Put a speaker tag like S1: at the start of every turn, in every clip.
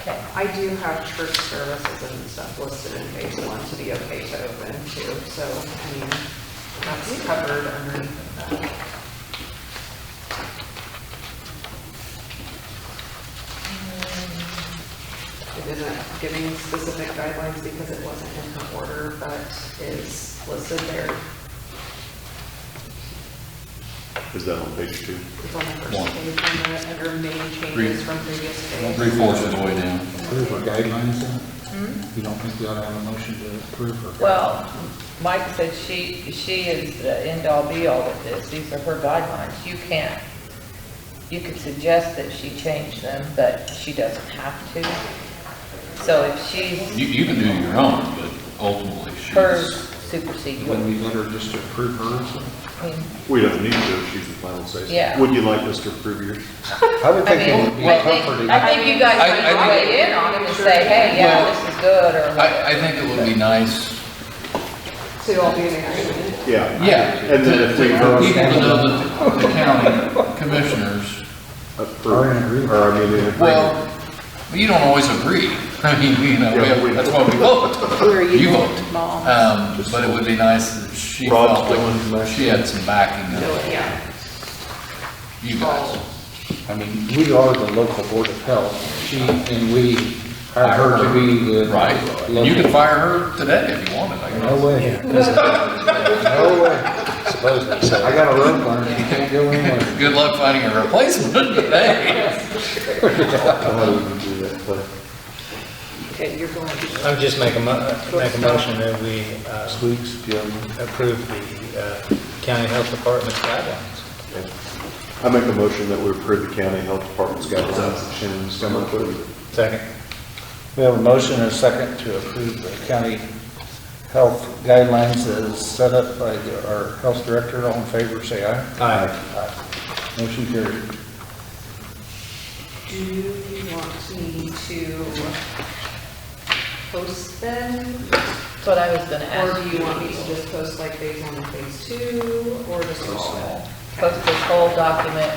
S1: Okay,
S2: I do have church services and stuff listed in phase one to be okay to open too, so, I mean, that's covered underneath of that. It isn't giving specific guidelines because it wasn't in the order that is listed there.
S3: Is that on page two?
S2: It's on the first
S4: One.
S2: page on the, under main
S4: Three.
S2: changes from previous phase.
S4: Three fourths of the way down.
S5: There's guidelines in it. You don't think we ought to have a motion to approve or?
S1: well, Mike said she, she is the end-all be-all with this, these are her guidelines, you can't, you could suggest that she change them, but she doesn't have to. So if she's,
S4: You, you can do your own, but ultimately she's.
S1: hers supersede
S5: Wouldn't
S1: yours.
S5: we let her just approve hers?
S1: I mean,
S3: We don't need to, she's the final say. so.
S1: Yeah.
S3: Would you like us to approve yours?
S5: I would
S1: I
S5: think it would be
S1: mean, I
S5: comforting.
S1: think, I think you guys
S4: I- I
S1: would
S4: think-
S1: weigh in on it and say, hey, yeah,
S4: Well,
S1: this is good, or
S4: I, I think it would be nice,
S2: So I'll be in agreement.
S3: Yeah.
S4: yeah.
S3: And then
S4: to-
S3: if we
S4: to-
S3: vote-
S4: People to know that the county commissioners,
S3: Approve.
S5: Or in agreement.
S3: Or I mean, in agreement.
S4: well, you don't always agree. I mean, you know, we have- that's why we vote.
S6: Where are you?
S4: You
S6: going,
S4: vote.
S6: Mom?
S4: Um, but it would be nice that she
S3: Rob's
S4: felt
S3: doing
S4: like
S3: motion.
S4: she had some backing of
S2: So, yeah,
S4: you guys. I mean,
S5: We are the local board of health. She and we hired her to be the.
S4: right? You
S5: local-
S4: could fire her today if you wanted, I guess.
S5: No way. No way. Supposedly so. I got a rope on her. She can't go anywhere.
S4: Good luck finding a replacement today.
S3: How do we do that? But
S2: okay, you're going to.
S7: I'm just making, make a motion that we uh,
S3: Squeaks, if you have
S7: approve the uh, county health department's guidelines.
S3: any. Okay. I make a motion that we approve the county health department's guidelines that Shannon's come up with.
S7: Second.
S5: We have a motion and a second to approve the county health guidelines as set up by the- our health director. All in favor, say aye.
S7: Aye.
S5: Aye. Motion carried.
S2: Do you want me to post them?
S1: That's what I was gonna
S2: Or
S1: ask
S2: do
S1: you.
S2: you want me to just post like phase one and phase two, or just all?
S1: Post this whole document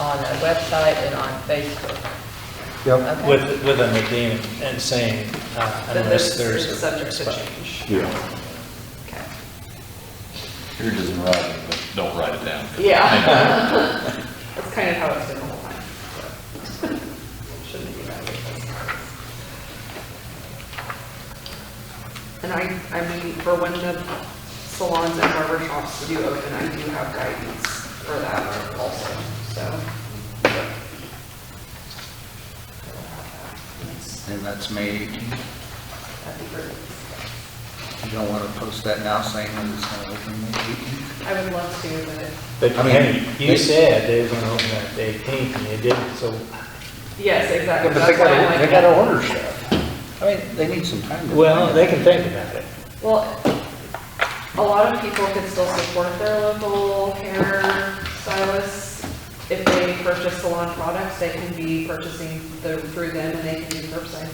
S1: on a website and on Facebook.
S5: Yep.
S1: Okay.
S7: With, with an addendum and saying uh,
S2: But
S7: unless
S2: this
S7: there's a.
S2: is subject to change.
S3: Yeah.
S2: Okay.
S4: Here doesn't write it, but don't write it down.
S2: Yeah. That's kind of how it's been the whole time. so. Shouldn't be that way. And I, I mean, for when the salons and barber shops do open, I do have guidance for that also, so.
S5: And that's May 18th.
S2: That'd be great.
S5: You don't want to post that now saying that it's going to open May 18th?
S2: I would love to, but,
S7: But
S5: I mean,
S7: hey,
S5: they-
S7: you said they were going to open up the 18th and you didn't, so
S2: yes, exactly.
S5: But they
S2: That's why I'm
S5: got,
S2: like-
S5: they got to order stuff. I mean, they need some time. to-
S7: well, they can think about it.
S2: Well, a lot of people can still support their local hair stylists. If they purchase salon products, they can be purchasing the- through them and they can do curbside.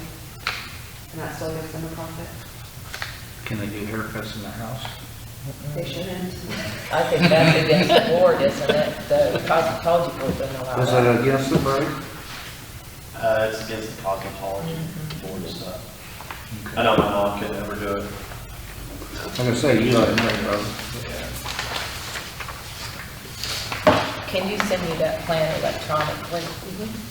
S2: And that still gives them a profit.
S5: Can they do haircuts in the house?
S2: They shouldn't.
S1: I think that's against the board, isn't it? The cosmetology board doesn't allow
S5: Was
S1: that.
S5: that against the break?
S8: Uh, it's against the cosmetology board and stuff. I know my mom could never do it.
S5: I'm going to say, you ought to know, Rob.
S1: Can you send me that plan electronically?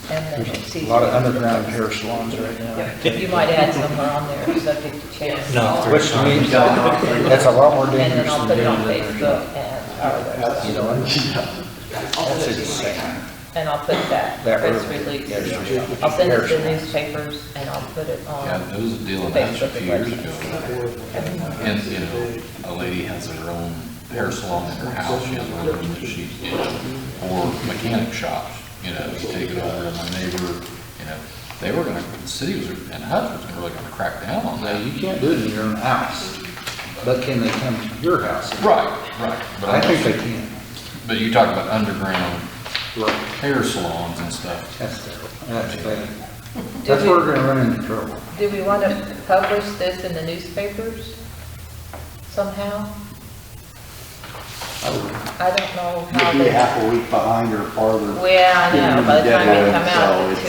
S1: And then
S5: There's
S1: see.
S5: a lot of underground hair salons right now.
S1: You might add somewhere on there, subject to change.
S7: No.
S5: Which means, that's a lot more
S1: And then
S5: dangerous
S1: I'll
S5: than
S1: put it on
S5: doing it.
S1: Facebook and our website.
S5: You know, that's insane.
S1: And I'll put that
S5: That
S1: press
S5: early.
S1: release.
S5: Yes, you
S1: I'll send it to
S5: Yes.
S1: the newspapers and I'll put it
S4: Yeah,
S1: on.
S4: there was a deal in Hatch a few years ago. And, you know, a lady has her own hair salon in her house, she has her own room that she, you know, or mechanic shops, you know, you take it over, and my neighbor, you know, they were gonna, the city was, and Hutch was really gonna crack down on
S5: Now,
S4: that.
S5: you can't do it in your own house, but can they come to your house?
S4: Right, right. But
S5: I think they
S4: I'm-
S5: can.
S4: But you talk about underground
S5: Right.
S4: hair salons and stuff.
S5: That's terrible. That's bad. That's where we're gonna run into trouble.
S1: Do we want to publish this in the newspapers somehow? I don't know how
S9: You'd be
S1: they,
S9: half a week behind or farther
S1: well, I know, by the time they come out, it's two